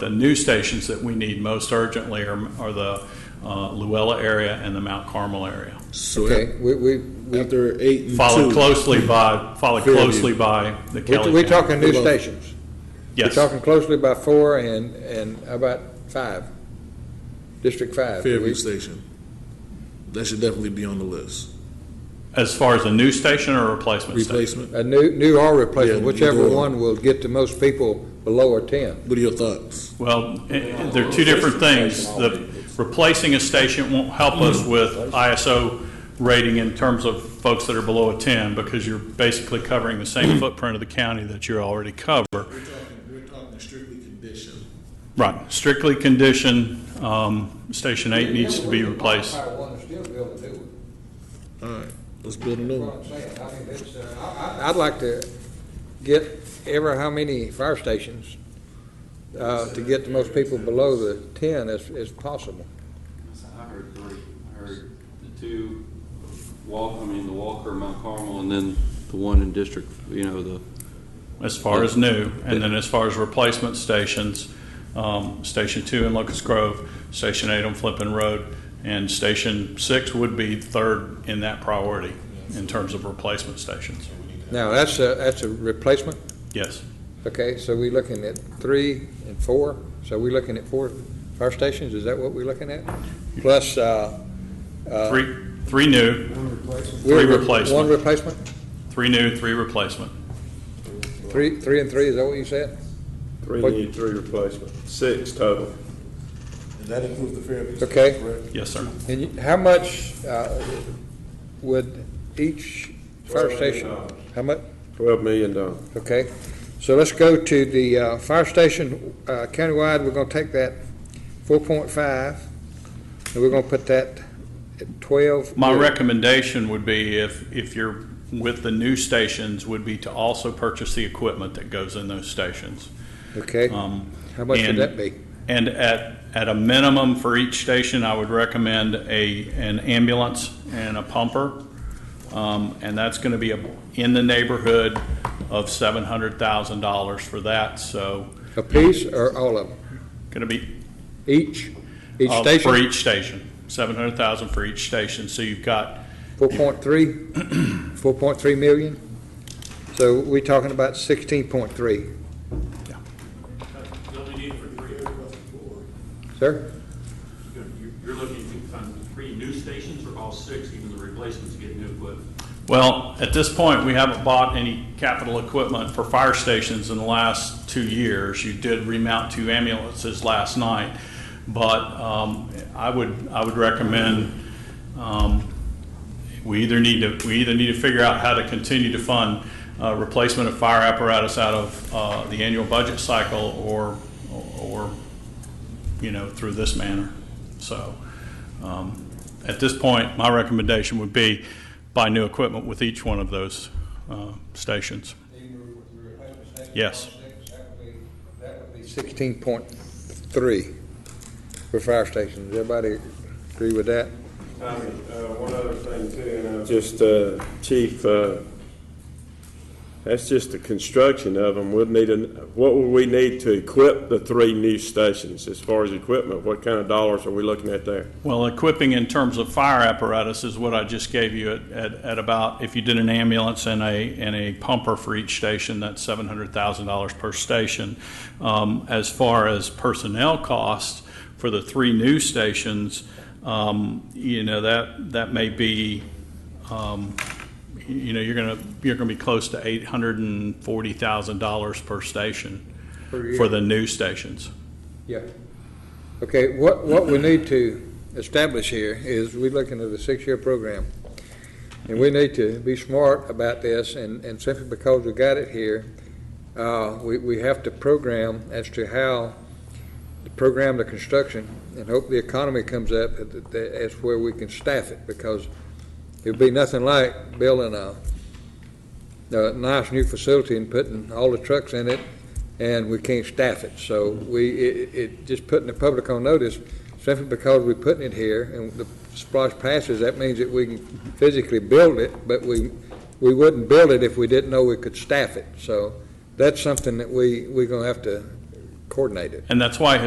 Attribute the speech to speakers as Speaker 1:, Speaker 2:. Speaker 1: the new stations that we need most urgently are, are the uh, Luella area and the Mount Carmel area.
Speaker 2: So
Speaker 3: Okay, we, we, we-
Speaker 2: after eight and
Speaker 1: Followed
Speaker 2: two,
Speaker 1: closely by, followed
Speaker 2: Fairview.
Speaker 1: closely by the Kelly.
Speaker 3: we're, we're
Speaker 1: County.
Speaker 3: talking new
Speaker 2: Hello.
Speaker 3: stations.
Speaker 1: Yes.
Speaker 3: We're talking closely by four and, and how about five? District five.
Speaker 2: Fairview
Speaker 3: We-
Speaker 2: Station, that should definitely be on the list.
Speaker 1: As far as a new station or a replacement station?
Speaker 2: Replacement.
Speaker 3: A new, new or replacement,
Speaker 2: Yeah,
Speaker 3: whichever
Speaker 2: either or.
Speaker 3: one will get to most people below a ten.
Speaker 2: What are your thoughts?
Speaker 1: Well, eh, eh, they're two different things. The, replacing a station won't help us with ISO rating in terms of folks that are below a 10 because you're basically covering the same footprint of the county that you already cover.
Speaker 2: We're talking, we're talking strictly condition.
Speaker 1: Right, strictly condition, um, Station 8 needs to be replaced.
Speaker 3: Fire one and still build a new one.
Speaker 2: All right, let's build a
Speaker 3: That's
Speaker 2: new
Speaker 3: what
Speaker 2: one.
Speaker 3: I'm saying. I mean, it's, uh, I- I- I'd like to get ever how many fire stations, uh, to get the most people below the ten as, as possible.
Speaker 4: I heard three. I heard the two, Walk, I mean, the Walker, Mount Carmel, and then the one in District, you know, the,
Speaker 1: as far as new, and then as far as replacement stations, um, Station Two in Locust Grove, Station Eight on Flippin Road, and Station Six would be third in that priority in terms of replacement stations.
Speaker 3: Now, that's a, that's a replacement,
Speaker 1: Yes,
Speaker 3: okay, so we looking at three and four, so we looking at four fire stations, is that what we're looking at? Plus, uh, uh.
Speaker 1: three, three new,
Speaker 3: we're-
Speaker 1: three
Speaker 3: One
Speaker 1: replacement.
Speaker 3: replacement,
Speaker 1: three new, three replacement.
Speaker 3: three, three and three, is that what you said?
Speaker 5: Three
Speaker 3: What-
Speaker 5: new, three replacement, six total.
Speaker 2: And that includes the Fairview.
Speaker 3: Station, Okay. correct?
Speaker 1: Yes, sir.
Speaker 3: And you- how much, uh, would each fire station, how much?
Speaker 5: Twelve million dollars.
Speaker 3: Okay, so let's go to the uh, fire station uh, countywide, we're gonna take that four point five, and we're gonna put that at twelve.
Speaker 1: My recommendation would be if, if you're with the new stations, would be to also purchase the equipment that goes in those stations.
Speaker 3: Okay,
Speaker 1: Um,
Speaker 3: how much would
Speaker 1: and-
Speaker 3: that be?
Speaker 1: And at, at a minimum for each station, I would recommend a, an ambulance and a pumper. Um, and that's gonna be a- in the neighborhood of seven hundred thousand dollars for that, so
Speaker 3: A piece or all of them?
Speaker 1: gonna be.
Speaker 3: Each, each
Speaker 1: uh, For
Speaker 3: station?
Speaker 1: each station, seven hundred thousand for each station, so you've got,
Speaker 3: Four point three, four point three million? So we are talking about sixteen point three,
Speaker 6: You only need for three.
Speaker 3: sir?
Speaker 6: You're- You're looking to fund three new stations or all six, even the replacements get new equipment?
Speaker 1: well, at this point, we haven't bought any capital equipment for fire stations in the last two years. You did remount two ambulances last night, but, um, I would, I would recommend, um, we either need to, we either need to figure out how to continue to fund uh, replacement of fire apparatus out of uh, the annual budget cycle or, or, you know, through this manner. So um, at this point, my recommendation would be buy new equipment with each one of those uh, stations. Yes.
Speaker 3: That would be Sixteen point three for fire stations, everybody agree with that?
Speaker 5: Tommy, uh, one other thing too, and I'm just, uh, Chief, uh, that's just the construction of them. We'll need, an- what will we need to equip the three new stations as far as equipment? What kind of dollars are we looking at there?
Speaker 1: Well, equipping in terms of fire apparatus is what I just gave you at, at, at about, if you did an ambulance and a, and a pumper for each station, that's seven hundred thousand dollars per station. Um, as far as personnel costs for the three new stations, um, you know, that, that may be, um, you know, you're gonna, you're gonna be close to eight hundred and forty thousand dollars per station
Speaker 3: Per year.
Speaker 1: for the new stations.
Speaker 3: Yeah. Okay, what, what we need to establish here is we're looking at a six-year program. And we need to be smart about this and, and simply because we got it here, uh, we, we have to program as to how to program the construction and hope the economy comes up at, the- the- as where we can staff it because it'd be nothing like building a, a nice new facility and putting all the trucks in it and we can't staff it. So we, it, it, just putting the public on notice, simply because we're putting it here and the splosh passes, that means that we can physically build it, but we, we wouldn't build it if we didn't know we could staff it. So that's something that we, we're gonna have to coordinated.
Speaker 1: And that's why